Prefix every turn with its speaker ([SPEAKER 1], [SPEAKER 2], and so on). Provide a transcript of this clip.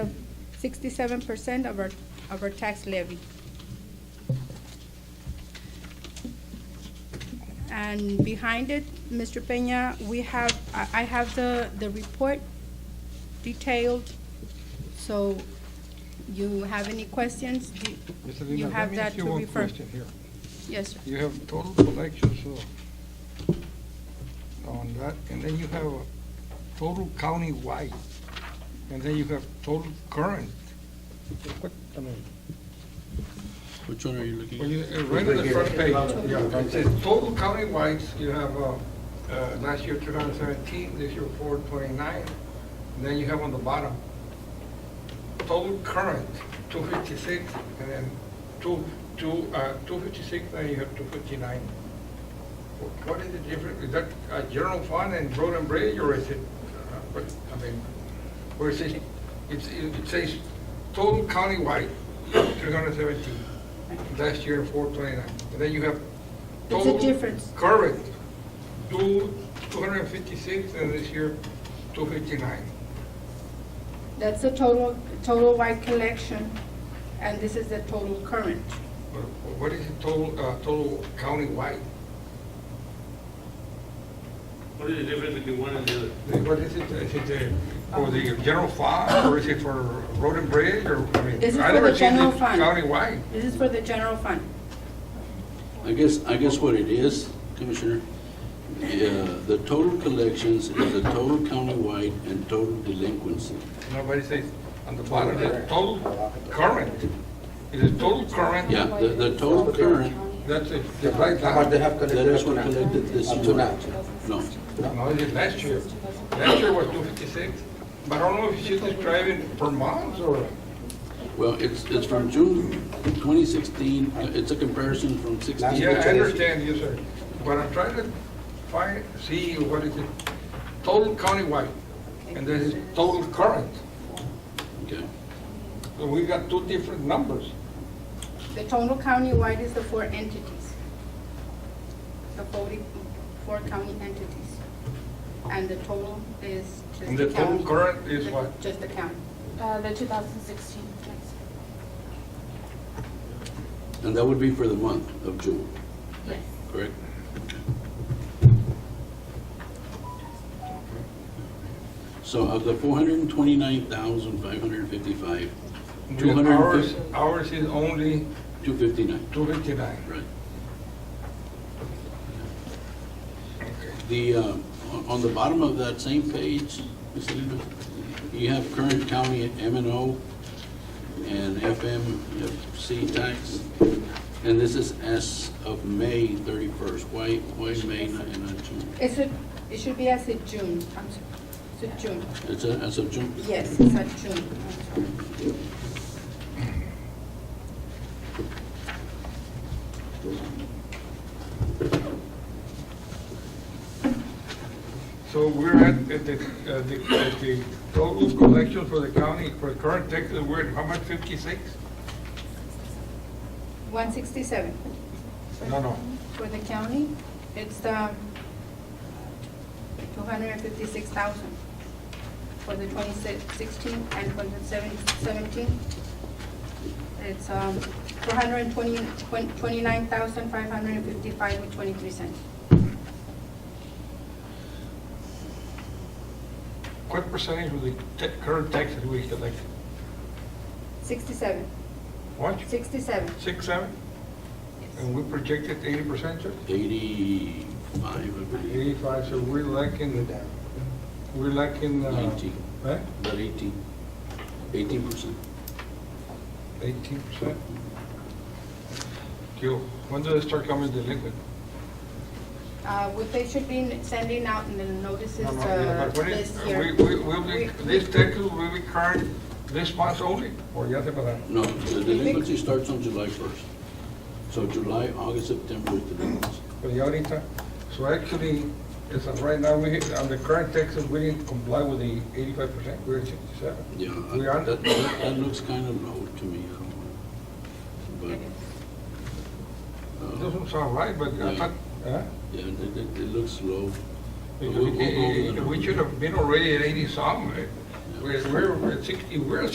[SPEAKER 1] sixty-seven percent of our, of our tax levy. And behind it, Mr. Peña, we have, I, I have the, the report detailed, so you have any questions? You-
[SPEAKER 2] Ms.
[SPEAKER 1] You
[SPEAKER 2] Salinas, let
[SPEAKER 1] have
[SPEAKER 2] me
[SPEAKER 1] that
[SPEAKER 2] ask you
[SPEAKER 1] to
[SPEAKER 2] one
[SPEAKER 1] refer.
[SPEAKER 2] question here.
[SPEAKER 1] Yes, sir.
[SPEAKER 2] You have total collections uh, on that, and then you have a total countywide, and then you have total current. What, I mean,
[SPEAKER 3] Which one are you looking
[SPEAKER 2] when
[SPEAKER 3] at?
[SPEAKER 2] you, uh, right on the front page, it says total countywide, you have, uh, uh, last year, 2017, this year, 429, and then you have on the bottom, total current, 256, and then two, two, uh, 256, then you have 259. Wh- What is the difference? Is that a general fund and road and bridge, or is it, uh, what, I mean, where it says, it's- it says total countywide, 317, last year, 429. And then you have
[SPEAKER 1] It's a
[SPEAKER 2] total
[SPEAKER 1] difference.
[SPEAKER 2] current, two, 256, and this year, 259.
[SPEAKER 1] That's the total, total wide collection, and this is the total current.
[SPEAKER 2] What- What is the total, uh, total countywide?
[SPEAKER 4] What is the difference between one and the other?
[SPEAKER 2] What is it, is it uh, for the general fund, or is it for road and bridge, or, I mean?
[SPEAKER 1] This is
[SPEAKER 2] I
[SPEAKER 1] for
[SPEAKER 2] never
[SPEAKER 1] the
[SPEAKER 2] seen
[SPEAKER 1] general
[SPEAKER 2] it
[SPEAKER 1] fund.
[SPEAKER 2] Countywide.
[SPEAKER 1] This is for the general fund.
[SPEAKER 3] I guess, I guess what it is, Commissioner, yeah, the total collections is the total countywide and total delinquency.
[SPEAKER 2] Nobody says on the bottom, the total current, is it total current?
[SPEAKER 3] Yeah, the, the total current,
[SPEAKER 2] That's it, the right
[SPEAKER 5] How much they
[SPEAKER 2] line.
[SPEAKER 5] have
[SPEAKER 3] that
[SPEAKER 5] collected?
[SPEAKER 3] is what
[SPEAKER 5] up to now?
[SPEAKER 3] collected this
[SPEAKER 5] Up to
[SPEAKER 3] year.
[SPEAKER 5] now.
[SPEAKER 3] No,
[SPEAKER 2] No, is it last year? Last year was two fifty-six, but I don't know if she's describing per month, or,
[SPEAKER 3] well, it's, it's from June 2016, uh, it's a comparison from 16.
[SPEAKER 2] yeah, I understand, yes, sir. But I'm trying to find, see what is it, total countywide, and then it's total current.
[SPEAKER 3] Okay.
[SPEAKER 2] So we got two different numbers.
[SPEAKER 1] The total countywide is the four entities. The forty-four county entities. And the total is just the county.
[SPEAKER 2] And the total current is
[SPEAKER 1] The-
[SPEAKER 2] what?
[SPEAKER 1] Just the county.
[SPEAKER 6] Uh, the 2016 tax.
[SPEAKER 3] And that would be for the month of June,
[SPEAKER 6] Yes.
[SPEAKER 3] correct? So of the 429,555,
[SPEAKER 2] Ours,
[SPEAKER 3] 259,
[SPEAKER 2] ours is only two fifty-nine.
[SPEAKER 3] right.
[SPEAKER 2] Okay.
[SPEAKER 3] The, uh, on- on the bottom of that same page, Ms. Salinas, you have current county M and O and FMC tax, and this is as of May 31st. Why, why May not- and not June?
[SPEAKER 1] It's a, it should be as of June, I'm sorry, it's a June,
[SPEAKER 3] It's a- as of June?
[SPEAKER 1] yes, it's at June, I'm sorry.
[SPEAKER 2] So we're at, at the, uh, the, at the total collection for the county, for current taxes, we're at how much, fifty-six?
[SPEAKER 1] One sixty-seven.
[SPEAKER 2] No, no.
[SPEAKER 1] For the county, it's, um, two hundred and fifty-six thousand for the twenty sixteen and for the seven- seventeen. It's, um, four hundred and twenty, twenty-nine thousand, five hundred and fifty-five with twenty-three cents.
[SPEAKER 2] What percentage of the ta- current taxes we collect?
[SPEAKER 1] Sixty-seven,
[SPEAKER 2] What?
[SPEAKER 1] sixty-seven,
[SPEAKER 2] Six, seven? And we projected eighty percent, sir?
[SPEAKER 3] 85, I believe,
[SPEAKER 2] Eighty-five, so we're lacking, uh, we're lacking, uh.
[SPEAKER 3] Ninety.
[SPEAKER 2] Huh?
[SPEAKER 3] about 18, 18%.
[SPEAKER 2] Eighteen percent? Gil, when do they start coming delinquent?
[SPEAKER 1] uh, what they should be sending out in the notices,
[SPEAKER 2] No, no, yeah,
[SPEAKER 1] uh,
[SPEAKER 2] but when it-
[SPEAKER 1] this year.
[SPEAKER 2] We, we, will be,
[SPEAKER 1] We-
[SPEAKER 2] this taxes will be current this month only, or ya se pasaron?
[SPEAKER 3] No, the delinquency starts on July 1st. So July, August, September is delinquency.
[SPEAKER 2] But ya ahorita, so actually, as of right now, we, on the current taxes, we didn't comply with the eighty-five percent, we're at sixty-seven.
[SPEAKER 3] Yeah,
[SPEAKER 2] We are-
[SPEAKER 3] I- that, that that looks kind of low to me, I don't know.
[SPEAKER 2] It
[SPEAKER 3] But, uh,
[SPEAKER 2] Doesn't sound right, but I
[SPEAKER 3] Yeah.
[SPEAKER 2] thought, huh?
[SPEAKER 3] yeah, it, it- it looks low. But
[SPEAKER 2] Because
[SPEAKER 3] we'll- we'll go over the
[SPEAKER 2] we- we
[SPEAKER 3] numbers.
[SPEAKER 2] should have been already at eighty-some, eh? we're, we're at sixty, we're at